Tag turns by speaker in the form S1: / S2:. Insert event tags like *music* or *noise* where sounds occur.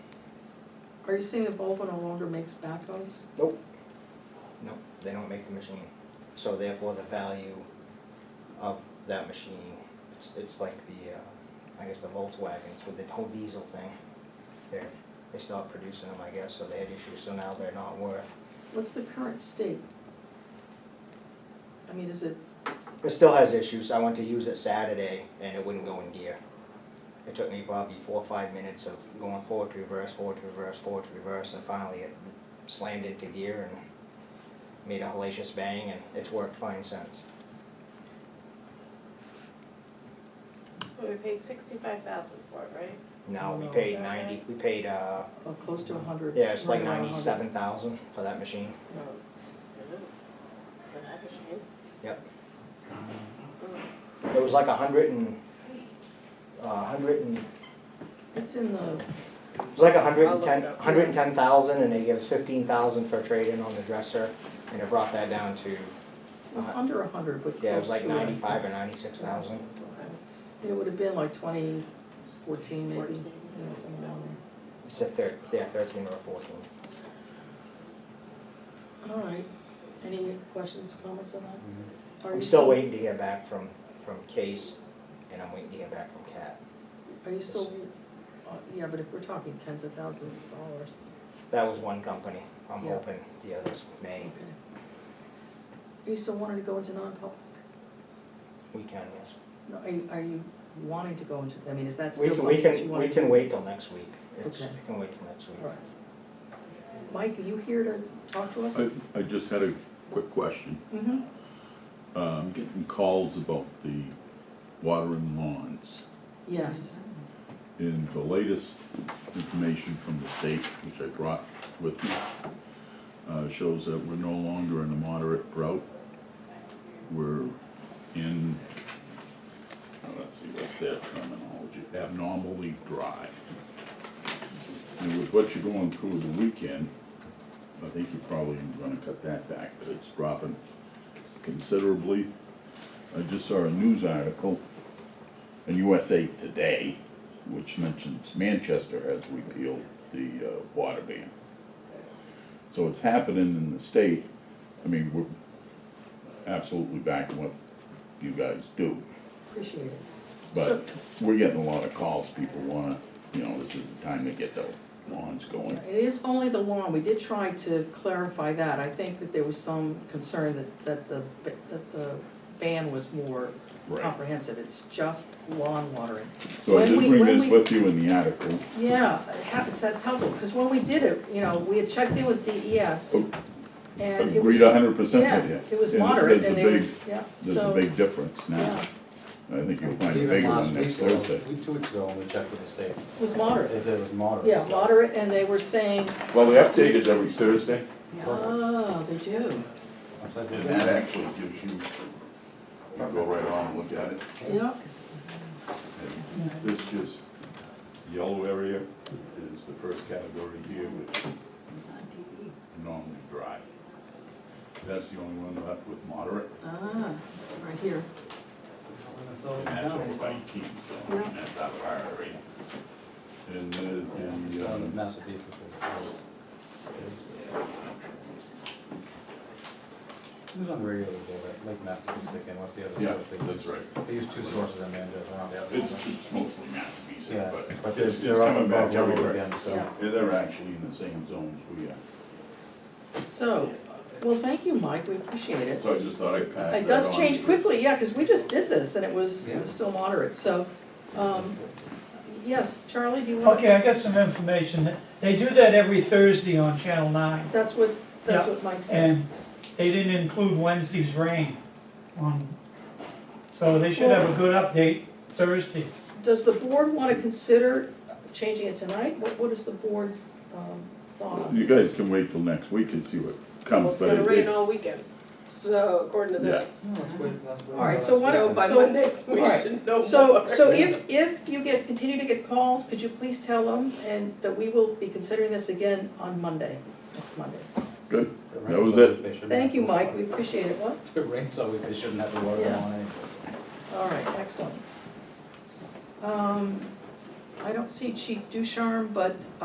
S1: Are you saying that Volvo no longer makes backhoes?
S2: No, they don't make the machine. So therefore, the value of that machine, it's, it's like the, uh, I guess the Volkswagens with the whole diesel thing. They're, they stopped producing them, I guess, so they had issues, so now they're not worth.
S1: What's the current state? I mean, is it, uh,
S2: It still has issues. I went to use it Saturday and it wouldn't go in gear. It took me probably four or five minutes of going forward to reverse, forward to reverse, forward to reverse, and finally it slammed into gear and made a hellacious bang and it's worked fine since.
S3: So we paid sixty-five thousand for it, right?
S2: No, we
S1: No.
S2: paid ninety, we paid, uh,
S1: uh, close to a hundred?
S2: yeah, it's like
S1: right around a hundred?
S2: ninety-seven thousand for that machine.
S3: No. For that machine?
S2: Yep.
S3: Mm.
S2: It was like a hundred and, uh, a hundred and, it
S1: It's in the,
S2: was like a hundred
S3: I'll
S2: and
S3: look
S2: ten,
S3: it up.
S2: hundred and ten thousand, and they gave us fifteen thousand for trade-in on the dresser, and it brought that down to,
S1: it was under a hundred, but close to
S2: Uh, yeah, it was like
S1: it.
S2: ninety-five or ninety-six thousand.
S1: Okay. It would have been like twenty fourteen maybe,
S3: Fourteen.
S1: yeah, something around there.
S2: It's a thir, yeah, thirteen or fourteen.
S1: All right, any questions, comments on that? Are
S2: Mm-hmm. I'm
S1: you
S2: still waiting to hear back from, from Case, and I'm waiting to hear back from Cat.
S1: Are you still, uh, yeah, but if we're talking tens of thousands of dollars,
S2: That was one company. I'm
S1: Yeah.
S2: hoping the others may,
S1: okay. Are you still wanting to go into non-public?
S2: we can, yes.
S1: No, are you, are you wanting to go into, I mean, is that
S2: We
S1: still
S2: can, we
S1: something that you
S2: can,
S1: want
S2: we
S1: to do?
S2: can wait till next week. It's, we
S1: Okay.
S2: can wait till next week.
S1: All right. Mike, are you here to talk to us?
S4: I, I just had a quick question.
S1: Mm-hmm.
S4: Uh, I'm getting calls about the water and lawns.
S1: Yes,
S4: And the latest information from the state, which I brought with me, uh, shows that we're no longer in a moderate drought. We're in, oh, let's see, what's that terminology, abnormally dry. And with what you're going through the weekend, I think you're probably gonna cut that back, but it's dropping considerably. I just saw a news article in USA Today, which mentions Manchester has repealed the uh, water ban. So it's happening in the state, I mean, we're absolutely backing what you guys do.
S1: appreciate it. So-
S4: But we're getting a lot of calls, people wanna, you know, this is the time to get the lawns going.
S1: It is only the lawn, we did try to clarify that, I think that there was some concern that, that the, that the ban was more
S4: Right.
S1: comprehensive, it's just lawn watering.
S4: So I
S1: When
S4: did
S1: we-
S4: bring
S1: when
S4: this
S1: we-
S4: with you in the article.
S1: Yeah, it happens, that's helpful, because when we did it, you know, we had checked in with DES
S4: Oh,
S1: and it was.
S4: Agreed hundred percent
S1: Yeah,
S4: with you.
S1: it was
S4: And
S1: moderate
S4: there's
S1: and they
S4: a
S1: were,
S4: big-
S1: yeah,
S4: There's a
S1: so,
S4: big difference now.
S1: yeah,
S4: I think you'll find a
S5: Even
S4: bigger
S5: last
S4: one next
S5: week, ago,
S4: Thursday.
S5: we- two weeks ago, when we checked with the state,
S1: it was moderate.
S5: they said it was moderate.
S1: Yeah,
S5: so-
S1: moderate, and they were saying,
S4: Well, the update is every Thursday.
S1: oh, they do,
S5: I said,
S4: And
S5: "Well,
S4: that actually gives you, you go right on and look at it.
S1: yeah,
S4: This just, yellow area is the first category here, which is normally dry. That's the only one left with moderate,
S1: ah, right here,
S5: so-
S4: and that's over by Keene, so
S1: Yeah.
S4: that's out of our area. And there's the,
S5: Yeah,
S4: um,
S5: Massapequa. It was on the radio the other day, right? like Massapequa again, what's the other
S4: Yeah,
S5: side of the
S4: that's right.
S5: They use two sources in Manchester, not the other.
S4: it's,
S5: one.
S4: it's mostly Massapequa,
S5: Yeah,
S4: but
S5: but
S4: it's, it's
S5: they're up
S4: coming
S5: above
S4: back
S5: level
S4: everywhere.
S5: again, so.
S1: Yeah.
S4: Yeah, They're actually in the same zones we are.
S1: so, well, thank you, Mike, we appreciate it.
S4: So I just thought I'd pass that on.
S1: It does change
S4: because-
S1: quickly, yeah, because we just did this, and it was it was
S5: Yeah.
S1: still moderate, so, um, yes, Charlie, do you want?
S6: Okay, I got some information. They do that every Thursday on Channel 9,
S1: That's what, that's
S6: Yeah,
S1: what Mike said.
S6: and they didn't include Wednesday's rain on, so they should have a good update Thursday.
S1: Does the board want to consider changing it tonight? What, what is the board's, um, thought on
S4: You
S1: this?
S4: guys can wait till next week and see what
S3: Well,
S4: comes,
S3: it's
S4: Um, but
S3: gonna rain
S4: it's,
S3: all weekend, so according to
S4: Yeah.
S3: this.
S5: No, let's wait- let's wait
S1: All right,
S5: till
S1: so why
S5: that's-
S3: So by
S1: so-
S3: Monday, we
S1: alright.
S3: should know more.
S1: So, so if, if you get, continue to get calls, could you please tell them, and that we will be considering this again on Monday, next Monday?
S4: good.
S5: If it
S4: That
S5: rains
S4: was
S5: all
S4: it.
S5: week, they shouldn't
S1: Thank you,
S5: have to water.
S1: Mike, we appreciate it, what?
S5: If *laughs* it rains all week, they shouldn't have to water
S1: Yeah.
S5: them on anything.
S1: All right, excellent. Um, I don't see Chief Ducharme, but